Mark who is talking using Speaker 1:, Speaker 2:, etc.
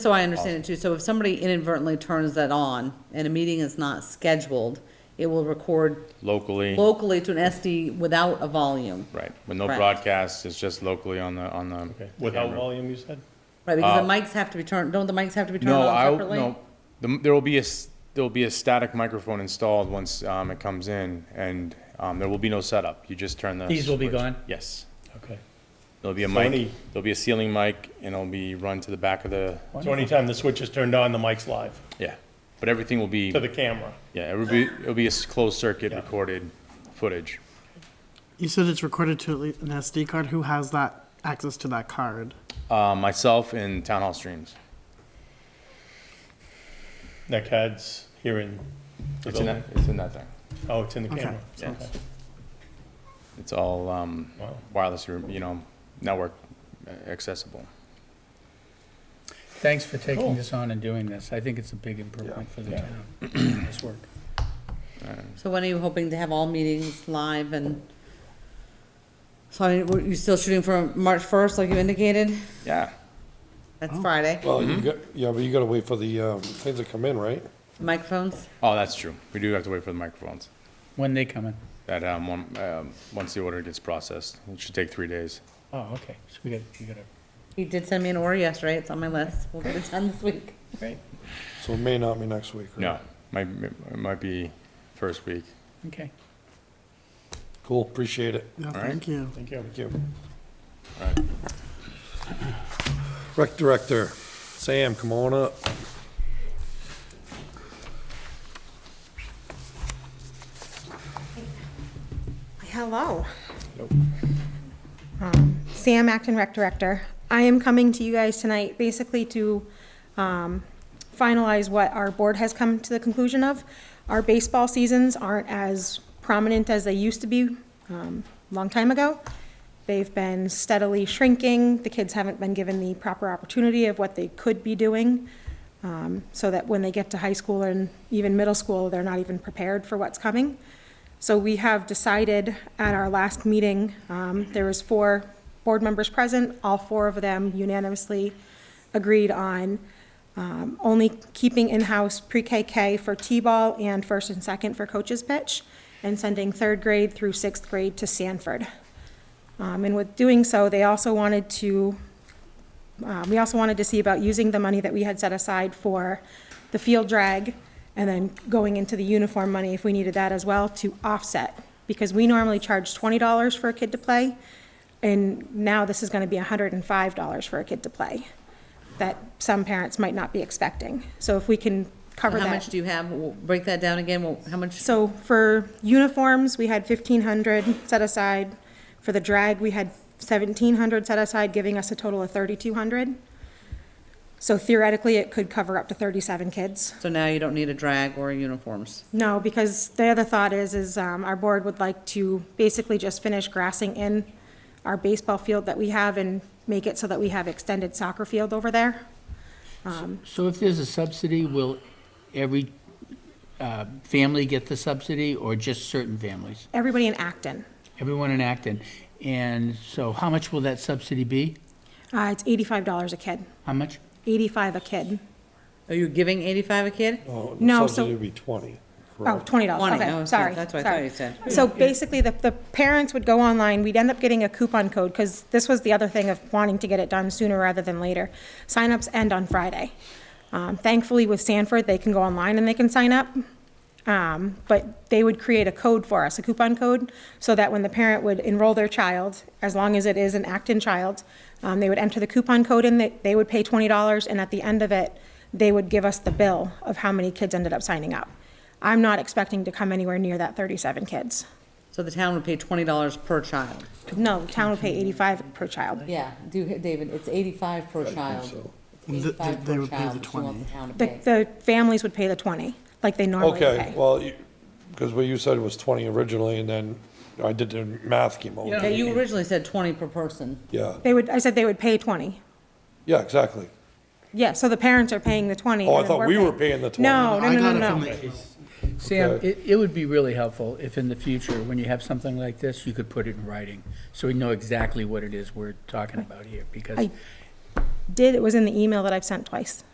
Speaker 1: So I understand it too, so if somebody inadvertently turns that on and a meeting is not scheduled, it will record
Speaker 2: locally,
Speaker 1: locally to an SD without a volume,
Speaker 2: right, with no
Speaker 1: Correct.
Speaker 2: broadcast, it's just locally on the, on the.
Speaker 3: Without
Speaker 2: camera.
Speaker 3: volume, you said?
Speaker 1: right? Because the mics have to be turned, don't the mics have to be turned
Speaker 2: Uh, No, I,
Speaker 1: on separately?
Speaker 2: no, The- there will be a, s- there'll be a static microphone installed once, um, it comes in, and, um, there will be no setup, you just turn the.
Speaker 4: These will be
Speaker 2: switch.
Speaker 4: gone?
Speaker 2: Yes,
Speaker 3: Okay.
Speaker 2: there'll be a
Speaker 3: Sony.
Speaker 2: mic, there'll be a ceiling mic, and it'll be run to the back of the,
Speaker 3: So anytime the switch is turned on, the mic's live
Speaker 2: yeah, but everything will be,
Speaker 3: to the camera.
Speaker 2: yeah, it'll be, it'll be a s- closed circuit
Speaker 3: Yeah.
Speaker 2: recorded footage.
Speaker 5: You said it's recorded to at least an SD card. Who has that access to that card?
Speaker 2: Uh, myself and Town Hall Streams,
Speaker 3: That CAD's here in the
Speaker 2: it's in
Speaker 3: building.
Speaker 2: that, it's in that thing,
Speaker 3: Oh, it's in the
Speaker 5: Okay.
Speaker 3: camera.
Speaker 2: Yeah. it's all, um,
Speaker 3: Wow.
Speaker 2: wireless, you know, network uh, accessible.
Speaker 4: Thanks for
Speaker 3: Cool.
Speaker 4: taking this on and doing this. I think it's a big improvement for the
Speaker 3: Yeah.
Speaker 4: town. This work.
Speaker 1: So when are you hoping to have all meetings live and? So I mean, were you still shooting for March first, like you indicated?
Speaker 2: Yeah,
Speaker 1: That's
Speaker 2: Oh.
Speaker 1: Friday,
Speaker 6: Well, you got, yeah, but you gotta wait for the, uh, things to come in, right?
Speaker 1: microphones,
Speaker 2: oh, that's true. We do have to wait for the microphones.
Speaker 4: When they come in.
Speaker 2: That, um, one, um, once the order gets processed, it should take three days.
Speaker 4: Oh, okay. So we got, you got a,
Speaker 1: he did send me an order yesterday, it's on my list, we'll get it done this week.
Speaker 3: Great.
Speaker 6: So it may not be next week. right?
Speaker 2: No, might, it might be first week.
Speaker 4: okay.
Speaker 6: Cool, appreciate it.
Speaker 5: Yeah,
Speaker 2: right.
Speaker 5: thank you.
Speaker 3: Thank you.
Speaker 6: Thank you. Rec Director, Sam, come on up.
Speaker 7: Hello. Um, Sam Acton, Rec Director. I am coming to you guys tonight basically to um, finalize what our board has come to the conclusion of. Our baseball seasons aren't as prominent as they used to be um, a long time ago. They've been steadily shrinking. The kids haven't been given the proper opportunity of what they could be doing, um, so that when they get to high school and even middle school, they're not even prepared for what's coming. So we have decided at our last meeting, um, there was four board members present, all four of them unanimously agreed on um, only keeping in-house pre-KK for T-ball and first and second for coaches pitch, and sending third grade through sixth grade to Sanford. Um, And with doing so, they also wanted to, uh, we also wanted to see about using the money that we had set aside for the field drag and then going into the uniform money if we needed that as well to offset. Because we normally charge twenty dollars for a kid to play, and now this is gonna be hundred and five dollars for a kid to play that some parents might not be expecting. So if we can cover that.
Speaker 1: How much do you have, We'll break that down again, Well, how much?
Speaker 7: So for uniforms, we had fifteen hundred set aside. For the drag, we had seventeen hundred set aside, giving us a total of thirty-two hundred. So theoretically, it could cover up to thirty-seven kids.
Speaker 1: So now you don't need a drag or uniforms.
Speaker 7: No, because the other thought is, is um, our board would like to basically just finish grassing in our baseball field that we have and make it so that we have extended soccer field over there.
Speaker 4: So if there's a subsidy, will every uh, family get the subsidy or just certain families?
Speaker 7: Everybody in Acton,
Speaker 4: Everyone in Acton? And so how much will that subsidy be?
Speaker 7: uh, it's eighty-five dollars a kid,
Speaker 4: How much?
Speaker 7: eighty-five a kid.
Speaker 1: Are you giving eighty-five a kid?
Speaker 6: Oh, the
Speaker 7: No, so-
Speaker 6: Subsidy would be twenty,
Speaker 7: Oh,
Speaker 6: correct?
Speaker 7: twenty dollars,
Speaker 1: 20, oh,
Speaker 7: okay,
Speaker 1: okay,
Speaker 7: sorry.
Speaker 1: that's what I thought
Speaker 7: sorry.
Speaker 1: you said.
Speaker 7: So basically, the, the parents would go online, we'd end up getting a coupon code, because this was the other thing of wanting to get it done sooner rather than later. Signups end on Friday. Um, thankfully, with Sanford, they can go online and they can sign up. Um, but they would create a code for us, a coupon code, so that when the parent would enroll their child, as long as it is an Acton child, um, they would enter the coupon code in, they, they would pay twenty dollars, and at the end of it, they would give us the bill of how many kids ended up signing up. I'm not expecting to come anywhere near that thirty-seven kids.
Speaker 1: So the town would pay twenty dollars per child?
Speaker 7: No, the town would pay eighty-five per child.
Speaker 1: Yeah, do, David, it's eighty-five per
Speaker 6: so.
Speaker 1: child. It's
Speaker 5: Th- th-
Speaker 1: 85
Speaker 5: they
Speaker 1: per
Speaker 5: would pay
Speaker 1: child
Speaker 5: the
Speaker 1: that she wants
Speaker 5: 20.
Speaker 1: town to
Speaker 7: The,
Speaker 1: pay.
Speaker 7: the families would pay the twenty, like they normally pay.
Speaker 6: Okay, well, you, cause what you said was twenty originally and then I did the math came
Speaker 1: Yeah,
Speaker 6: over.
Speaker 1: you originally said twenty per person.
Speaker 6: Yeah,
Speaker 7: They would, I said they would pay twenty.
Speaker 6: yeah, exactly.
Speaker 7: Yeah, so the parents are paying the twenty.
Speaker 6: Oh, I
Speaker 7: and then
Speaker 6: thought
Speaker 7: we're
Speaker 6: we were paying the twenty.
Speaker 7: No, no,
Speaker 5: I
Speaker 7: no,
Speaker 5: got
Speaker 7: no,
Speaker 5: it from
Speaker 7: no.
Speaker 5: the
Speaker 4: Sam,
Speaker 6: Okay.
Speaker 4: it, it would be really helpful if in the future, when you have something like this, you could put it in writing, so we know exactly what it is we're talking about here, because
Speaker 7: I- Did, it was in the email that I've sent twice.